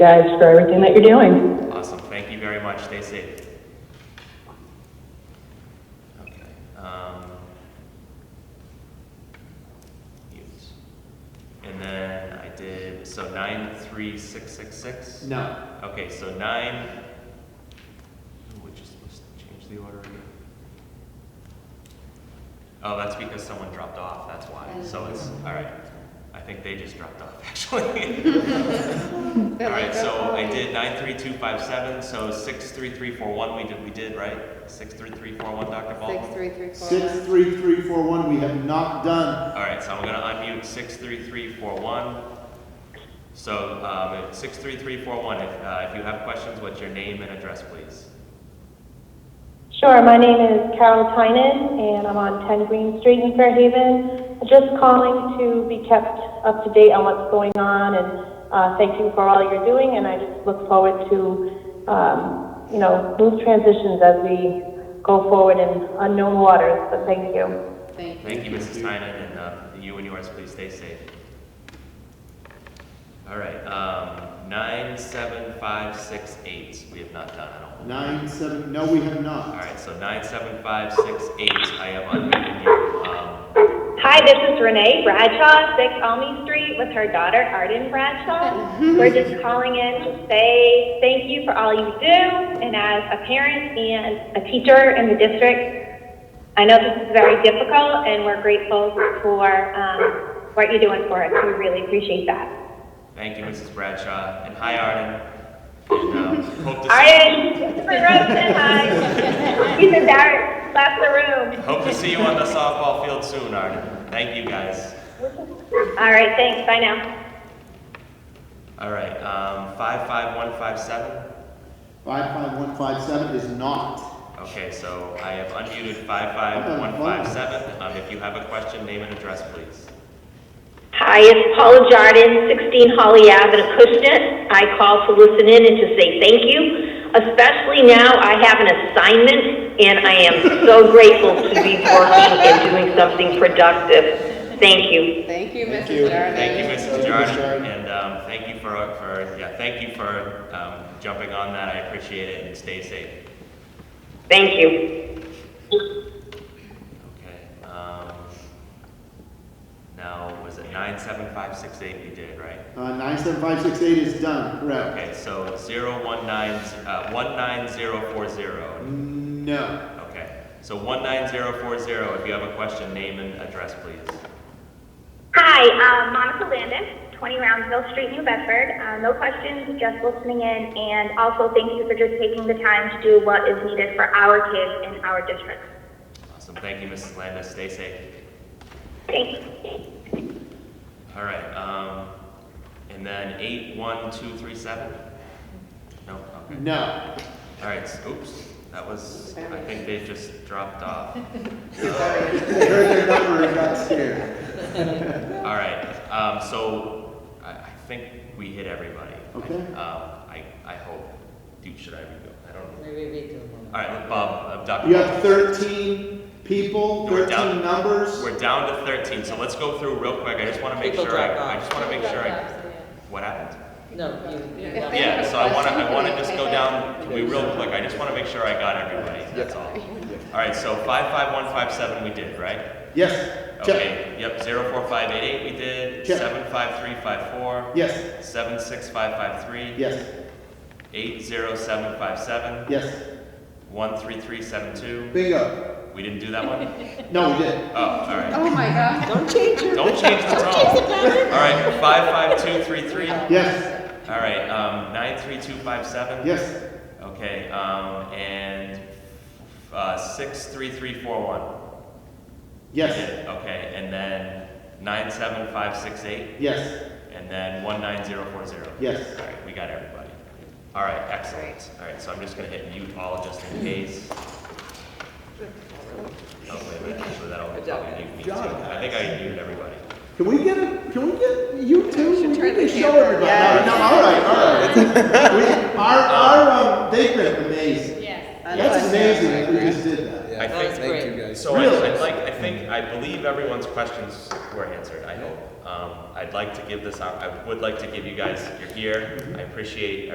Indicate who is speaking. Speaker 1: guys for everything that you're doing.
Speaker 2: Awesome, thank you very much, stay safe. Okay. um, mute. And then I did, so nine, three, six, six, six?
Speaker 3: No.
Speaker 2: Okay, so nine, oh, we just must change the order again. Oh, that's because someone dropped off, that's why, so it's, all right, I think they just dropped off, actually. All right, so I did nine three two five seven, so six three three four one, we did, we did, right? Six three three four one, Dr.
Speaker 4: Six,
Speaker 2: Baldwin?
Speaker 4: three, three, four,
Speaker 3: Six,
Speaker 4: one.
Speaker 3: three, three, four, one, we have not done.
Speaker 2: All right, so I'm gonna unmute six three three four one. So, um, six three three four one, if, uh, if you have questions, what's your name and address, please?
Speaker 5: Sure, my name is Carol Tynan, and I'm on 10 Green Street in Fairhaven. Just calling to be kept up to date on what's going on, and uh, thank you for all you're doing, and I just look forward to, um, you know, smooth transitions as we go forward in unknown waters, but thank you.
Speaker 4: Thank you.
Speaker 2: Thank you, Mrs. Tynan, and uh, you and yours, please stay safe. All right, um, nine, seven, five, six, eight, we have not done, I don't.
Speaker 3: Nine, seven, no, we have
Speaker 2: All
Speaker 3: not.
Speaker 2: right, so nine, seven, five, six, eight, I have unmuted you. Um,
Speaker 6: Hi, this is Renee Bradshaw, 6 Almy Street, with her daughter Arden Bradshaw. We're just calling in to say thank you for all you do, and as a parent and a teacher in the district, I know this is very difficult, and we're grateful for um, what you're doing for us. We really appreciate that.
Speaker 2: Thank you, Mrs. Bradshaw, and hi, Arden. And, um, hope to see,
Speaker 6: Arden, Christopher Rosen, hi. He's in there, left the room.
Speaker 2: hope to see you on the softball field soon, Arden. Thank you, guys.
Speaker 6: All right, thanks, bye now.
Speaker 2: All right, um, five, five, one, five, seven?
Speaker 3: Five, five, one, five, seven is not.
Speaker 2: Okay, so I have unmuted five five one five seven. Um, if you have a question, name and address, please.
Speaker 7: Hi, it's Paula Jardin, 16 Holly Ave in Acushnet. I call to listen in and to say thank you, especially now I have an assignment, and I am so grateful to be working and doing something productive. Thank you.
Speaker 4: Thank you,
Speaker 3: Thank you.
Speaker 4: Mrs. Jarvis.
Speaker 2: Thank you, Mrs.
Speaker 3: Mrs.
Speaker 2: Jarden,
Speaker 3: Jarden.
Speaker 2: and, um, thank you for, for, yeah, thank you for, um, jumping on that. I appreciate it and stay safe.
Speaker 7: Thank you.
Speaker 2: Okay, um, now, was it nine seven five six eight we did, right?
Speaker 3: Uh, nine, seven, five, six, eight is done, correct.
Speaker 2: Okay, so zero one nine, uh, one nine zero four zero.
Speaker 3: No.
Speaker 2: Okay, so one nine zero four zero, if you have a question, name and address, please.
Speaker 6: Hi, um, Monica Landis, 20 Roundsville Street, New Bedford. Uh, no questions, just listening in, and also thank you for just taking the time to do what is needed for our kids in our district.
Speaker 2: Awesome, thank you, Mrs. Landis, stay safe.
Speaker 6: Thanks.
Speaker 2: All right, um, and then eight, one, two, three, seven? No, okay.
Speaker 3: No.
Speaker 2: All right, s- oops, that was, I think they just dropped off.
Speaker 3: They heard their number and got scared.
Speaker 2: All right, um, so I, I think we hit everybody.
Speaker 3: Okay.
Speaker 2: Um, I, I hope, dude, should I redo? I don't know.
Speaker 8: Maybe we do one.
Speaker 2: All right, Bob, uh, Dr.
Speaker 3: You have thirteen people,
Speaker 2: We're down.
Speaker 3: thirteen numbers.
Speaker 2: We're down to thirteen, so let's go through real quick. I just wanna make
Speaker 8: People
Speaker 2: sure,
Speaker 8: dropped
Speaker 2: I, I
Speaker 8: off.
Speaker 2: just wanna make sure I, what happened?
Speaker 8: No, you, you.
Speaker 4: Yeah.
Speaker 2: Yeah, so I wanna, I wanna just go
Speaker 4: Okay.
Speaker 2: down, can we real quick, I just wanna make sure I got everybody, that's all. All right, so five five one five seven we did, right?
Speaker 3: Yes. Check.
Speaker 2: Okay, yep, zero four five eight eight we did,
Speaker 3: Check.
Speaker 2: seven five three five four,
Speaker 3: Yes,
Speaker 2: seven six five five three,
Speaker 3: yes,
Speaker 2: eight zero seven five seven,
Speaker 3: yes.
Speaker 2: one three three seven two.
Speaker 3: Bingo.
Speaker 2: We didn't do that one?
Speaker 3: No, we did.
Speaker 2: Oh, all right.
Speaker 4: Oh, my God.
Speaker 8: Don't change your.
Speaker 2: Don't change the tone. All right, five five two three three, all
Speaker 3: Yes,
Speaker 2: right, um, nine three two five seven.
Speaker 3: yes,
Speaker 2: Okay, um, and, uh, six, three, three, four, one.
Speaker 3: yes,
Speaker 2: Okay, and then nine, seven, five, six, eight,
Speaker 3: yes,
Speaker 2: and then one, nine, zero, four, zero.
Speaker 3: yes.
Speaker 2: All right, we got everybody. All right, excellent. All right, so I'm just gonna hit mute all just in case. Oh, wait, wait, actually, that'll
Speaker 8: Good job,
Speaker 2: probably mute me
Speaker 3: guys.
Speaker 2: too.
Speaker 3: Good job,
Speaker 2: I think I muted everybody.
Speaker 3: Can we get a, can we get you two, we need
Speaker 4: turn
Speaker 3: to
Speaker 4: the
Speaker 3: show
Speaker 4: camera.
Speaker 3: everybody,
Speaker 4: Yeah.
Speaker 3: no, no, all right, all right. We- Our, our, um, they've been amazing,
Speaker 6: Yes.
Speaker 3: that's amazing that we just did that.
Speaker 2: I
Speaker 4: That was
Speaker 2: think-
Speaker 3: Thank you,
Speaker 4: great.
Speaker 3: guys.
Speaker 2: So I- I'd like, I think, I believe everyone's questions were answered, I hope. Um, I'd like to give this, op- I would like to give you guys, you're here, I appreciate